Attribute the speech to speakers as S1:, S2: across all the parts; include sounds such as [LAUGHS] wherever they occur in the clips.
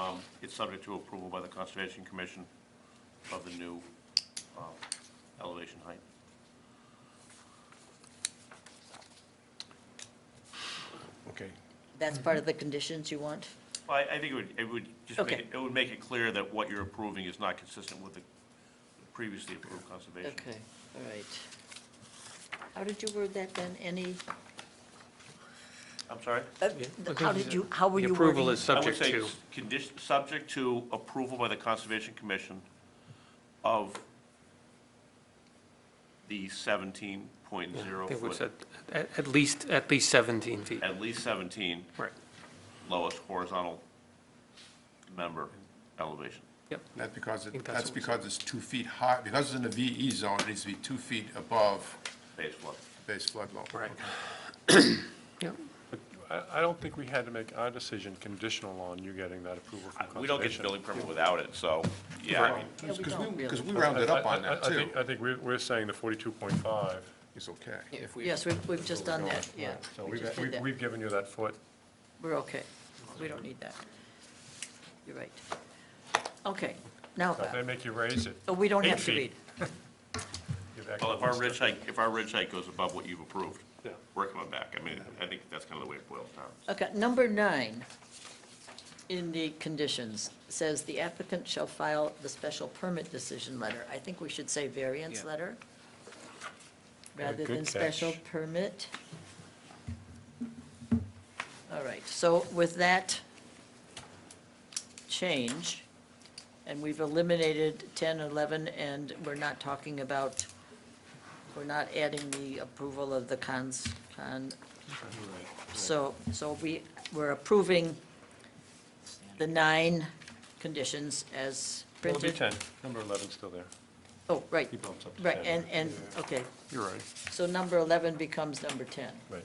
S1: Um, It's subject to approval by the Conservation Commission of the new um, elevation height.
S2: Okay.
S3: That's part of the conditions you want?
S1: Well, I I think it would, it would just make,
S3: Okay.
S1: it it would make it clear that what you're approving is not consistent with the previously approved conservation.
S3: Okay, all right. How did you word that then? Any,
S1: I'm sorry?
S3: uh, how did you, how were you
S4: The approval
S3: wording?
S4: is subject
S1: I
S4: to,
S1: would say condition, subject to approval by the Conservation Commission of the seventeen point
S4: I
S1: zero
S4: think we
S1: foot,
S4: said, at, at least, at least 17 feet.
S1: at least seventeen
S4: Right,
S1: lowest horizontal member elevation.
S4: yep.
S2: That's because, it-
S4: think that's
S2: that's
S4: what we
S2: because it's two feet high, because it's in the VE zone, it needs to be two feet above
S1: Base flood.
S2: base flood level.
S4: Right. [COUGHS] Yep.
S5: I, I don't think we had to make our decision conditional on you getting that approval from conservation.
S1: We don't get the building permit without it, so, yeah, I mean,
S3: Yeah, we
S2: Because
S3: don't
S2: we,
S3: really.
S2: because we
S5: I-
S2: rounded up
S5: I-
S2: on
S5: I-
S2: that
S5: I
S2: too.
S5: think- uh, I think we're, we're saying the forty-two point five.
S2: It's okay.
S3: Yes, we've, we've just done that, yeah.
S5: So
S3: We
S5: we've,
S3: just did
S5: we've-
S3: that.
S5: we've given you that foot.
S3: We're okay. We don't need that. You're right. Okay, now,
S5: If They make you raise it.
S3: uh, we don't
S5: Eight
S3: have to
S5: feet.
S3: read.
S5: You've actually-
S1: well, if our ridge height, if our ridge height goes above what you've approved,
S5: Yeah.
S1: we're coming back. I mean, I think that's kind of the way it boils down.
S3: Okay, number nine in the conditions says the applicant shall file the special permit decision letter. I think we should say variance
S4: Yeah.
S3: letter
S5: Yeah,
S3: rather
S5: good
S3: than special
S5: catch.
S3: permit. All right, so with that change, and we've eliminated 10, 11, and we're not talking about, we're not adding the approval of the cons, con, so, so we, we're approving the nine conditions as
S5: It'll be
S3: printed.
S5: ten, number eleven's still there.
S3: Oh, right,
S5: He bumps up to
S3: right,
S5: 10.
S3: and, and, okay,
S5: You're right,
S3: so number 11 becomes number 10.
S5: right.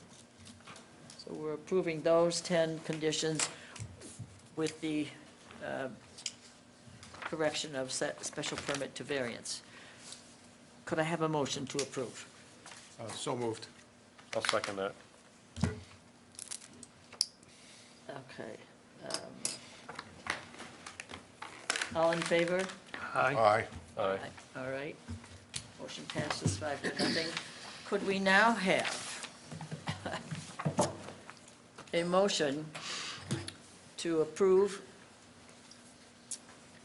S3: So we're approving those 10 conditions with the uh, correction of se- special permit to variance. Could I have a motion to approve?
S2: Uh, So moved.
S5: I'll second that.
S3: Okay. um, All in favor?
S4: Aye.
S2: Aye.
S5: Aye.
S3: All right. Motion passes five to nothing. Could we now have a motion to approve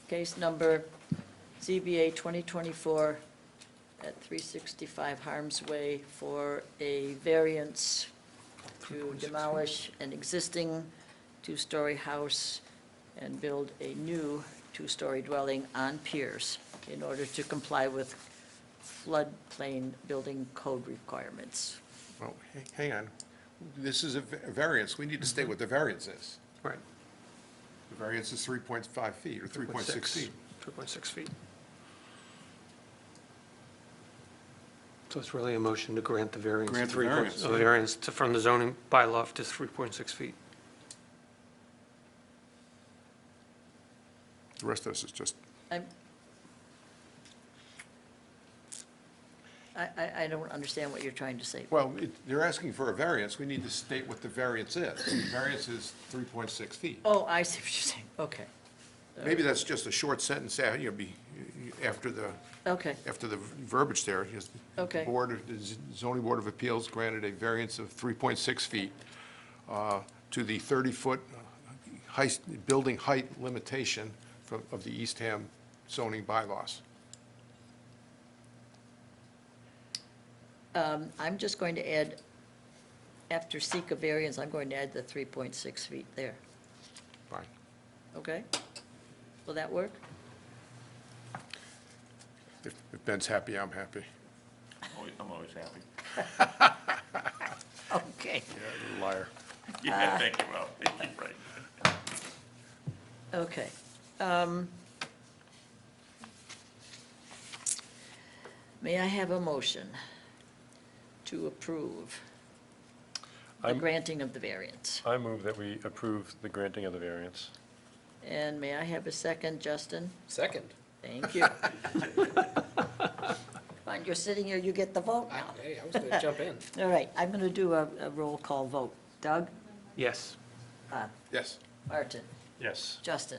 S3: case number ZBA 2024 at 365 Harms Way for a variance to demolish an existing two-story house and build a new two-story dwelling on piers in order to comply with floodplain building code requirements.
S2: Well, h- hang on. This is a va- variance. We need to state what the variance is.
S4: Right.
S2: The variance is 3.5 feet or 3.6 feet.
S4: 3.6 feet. So it's really a motion to grant the variance.
S2: Grant
S4: to
S2: the
S4: 3.6
S2: variance,
S4: A
S2: yeah.
S4: variance to- from the zoning bylaw to 3.6 feet.
S2: The rest of this is just,
S3: I'm, I, I, I don't understand what you're trying to say.
S2: well, it- they're asking for a variance. We need to state what the variance is. The variance is 3.6 feet.
S3: Oh, I see what you're saying, okay,
S2: Maybe that's just a short sentence, uh, you know, be, after the,
S3: okay,
S2: after the verbiage there, just.
S3: Okay.
S2: Board, of- the zoning board of appeals granted a variance of 3.6 feet uh, to the 30-foot height, building height limitation from, of the Eastham zoning bylaws.
S3: Um, I'm just going to add, after seek a variance, I'm going to add the 3.6 feet there,
S2: Fine.
S3: okay? Will that work?
S2: If if Ben's happy, I'm happy.
S1: Always- I'm always happy.
S3: Okay,
S2: Liar.
S1: Yeah, [LAUGHS] thank you, Rob. Thank you, right.
S3: okay. Um, May I have a motion to approve the
S5: I'm-
S3: granting of the variance?
S5: I move that we approve the granting of the variance.
S3: And may I have a second, Justin?
S6: Second.
S3: Thank you. Come on, you're sitting here, you get the vote
S6: I-
S3: now.
S6: Hey, I was gonna jump in.
S3: All right, I'm going to do a, a roll call vote. Doug,
S4: Yes.
S3: Bob,
S2: Yes.
S3: Martin,
S5: Yes.
S3: Justin.